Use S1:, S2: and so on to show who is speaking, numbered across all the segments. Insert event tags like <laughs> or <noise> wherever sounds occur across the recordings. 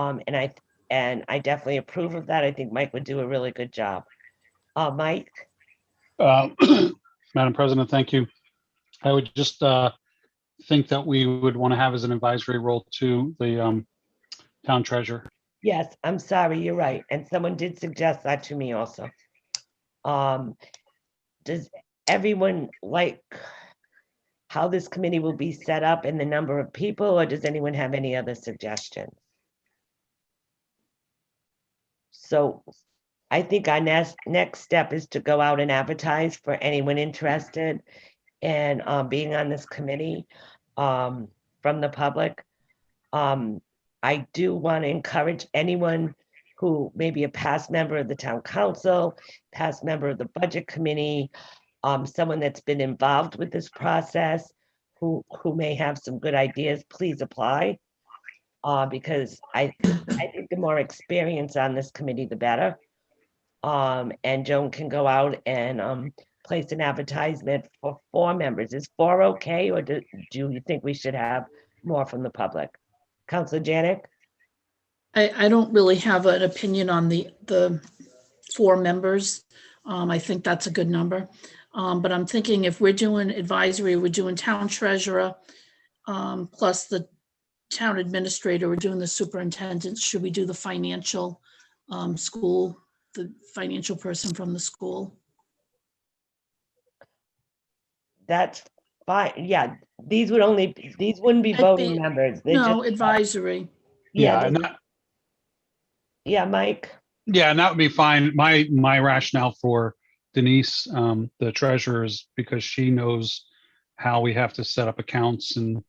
S1: Um, and I, and I definitely approve of that. I think Mike would do a really good job. Uh, Mike,
S2: Uh, <clears throat> Madam President, thank you. I would just uh, think that we would want to have as an advisory role to the um, town treasurer.
S1: yes, I'm sorry, you're right. And someone did suggest that to me also. Um, does everyone like how this committee will be set up and the number of people, or does anyone have any other suggestions? So I think our next, next step is to go out and advertise for anyone interested in uh, being on this committee um, from the public. Um, I do want to encourage anyone who may be a past member of the town council, past member of the budget committee, um, someone that's been involved with this process, who, who may have some good ideas, please apply. Uh, because I, I think the more experience on this committee, the better. Um, and Joan can go out and, um, place an advertisement for four members. Is four okay, or do, do you think we should have more from the public? Counselor Janik?
S3: I, I don't really have an opinion on the, the four members. Um, I think that's a good number. Um, but I'm thinking if we're doing advisory, we're doing town treasurer, um, plus the town administrator, we're doing the superintendent, should we do the financial, um, school, the financial person from the school?
S1: That's fine, yeah, these would only, these wouldn't be
S3: I'd
S1: voting
S3: be-
S1: members. They
S3: No,
S1: just-
S3: advisory.
S1: Yeah,
S2: And
S1: they-
S2: that,
S1: yeah, Mike,
S2: yeah, and that would be fine. My, my rationale for Denise, um, the treasurer is because she knows how we have to set up accounts and,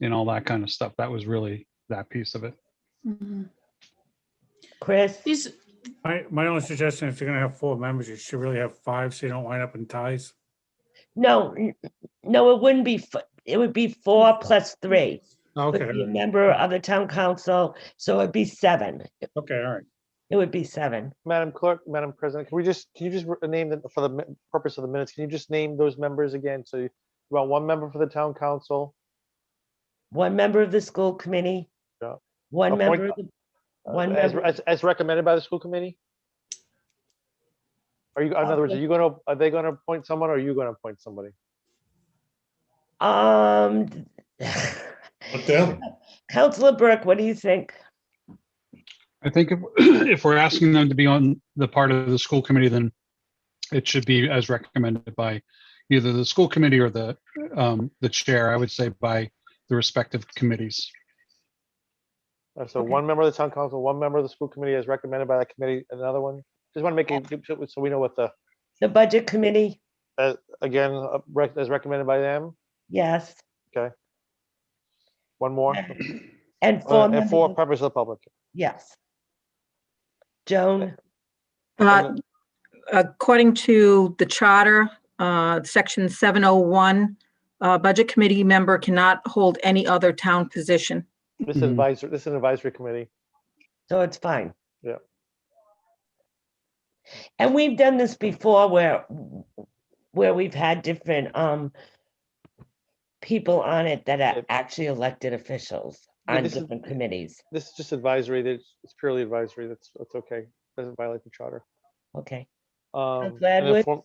S2: and all that kind of stuff. That was really that piece of it.
S3: Mhm.
S1: Chris,
S3: These,
S4: My, my only suggestion, if you're gonna have four members, you should really have five, so you don't wind up in ties.
S1: no, n- no, it wouldn't be, f- it would be four plus three.
S4: Okay,
S1: Would be a Member of the town council, so it'd be seven,
S4: okay, all right.
S1: it would be seven.
S5: Madam Clerk, Madam President, can we just, can you just re- name them for the mi- purpose of the minutes? Can you just name those members again? So you you want one member for the town council,
S1: One member of the school committee.
S5: Yeah.
S1: One
S5: Appoint-
S1: member, of the
S5: uh,
S1: One
S5: as,
S1: member.
S5: as, as recommended by the school committee? Are you, in other
S1: Uh,
S5: words, are
S3: Okay.
S5: you gonna, are they gonna appoint someone or are you gonna appoint somebody?
S1: um. <laughs> Counselor Burke, what do you think?
S2: I think if, <clears throat> if we're asking them to be on the part of the school committee, then it should be as recommended by either the school committee or the, um, the chair, I would say by the respective committees.
S5: Uh, So
S1: Okay.
S5: one member of the town council, one member of the school committee as recommended by that committee, and another one. Just want to make it, so- so we know what the,
S1: The budget committee,
S5: again, uh, rec- as recommended by them,
S1: yes,
S5: one more.
S1: and
S5: Uh,
S1: four
S5: And
S1: members,
S5: for
S1: of-
S5: purpose of the public.
S1: yes. Joan,
S6: Uh,
S5: Okay.
S6: According to the charter, uh, section 701, uh, budget committee member cannot hold any other town position.
S5: This is
S1: Mm-hmm.
S2: Mhm.
S5: advisor, this is an advisory committee.
S1: so it's fine.
S5: Yeah.
S1: And we've done this before where, where we've had different, um, people on it that are
S5: Yep.
S1: actually elected officials
S5: Yeah,
S1: on
S5: this is-
S1: different committees.
S5: This is just advisory, that it's purely advisory, that's, that's okay, doesn't violate the charter.
S1: Okay.
S5: Um, and
S1: glad
S5: then
S1: with-
S5: form-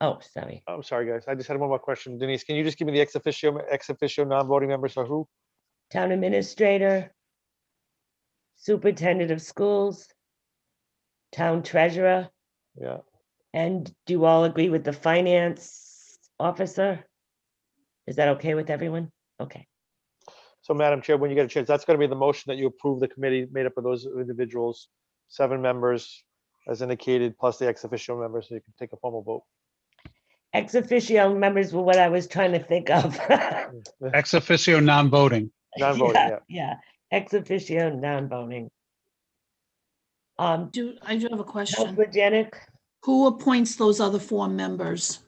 S1: Oh, sorry.
S5: I'm sorry, guys, I just had one more question. Denise, can you just give me the ex officio, ex officio non-voting members for who?
S1: Town administrator, superintendent of schools, town treasurer,
S5: Yeah,
S1: And do you all agree with the finance officer? Is that okay with everyone? Okay,
S5: so Madam Chair, when you get a chance, that's gonna be the motion that you approve the committee made up of those individuals, seven members as indicated, plus the ex officio members, so you can take a formal vote.
S1: ex officio members were what I was trying to think of. <laughs>
S2: Ex officio non-voting.
S5: Non-voting,
S1: Yeah,
S5: yeah.
S1: Yeah, ex officio non-voting. Um,
S3: do, I do have a question.
S1: Counselor Janik,
S3: Who appoints those other four members?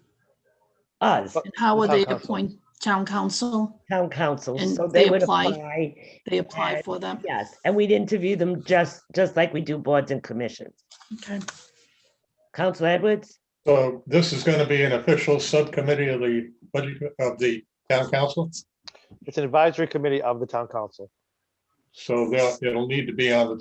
S1: us,
S5: But-
S3: And how
S5: The
S3: are
S5: town
S3: they
S5: council.
S3: appoint town council?
S1: town council,
S3: And
S1: so
S3: they
S1: they would
S3: apply.
S1: apply.
S3: They apply
S1: And-
S3: for them?
S1: Yes, and we'd interview them just, just like we do boards and commissions.
S3: Okay.
S1: Counselor Edwards?
S7: So this is going to be an official subcommittee of the, budget- of the town council.
S5: It's an advisory committee of the town council.
S7: So they'll, it'll need to be on the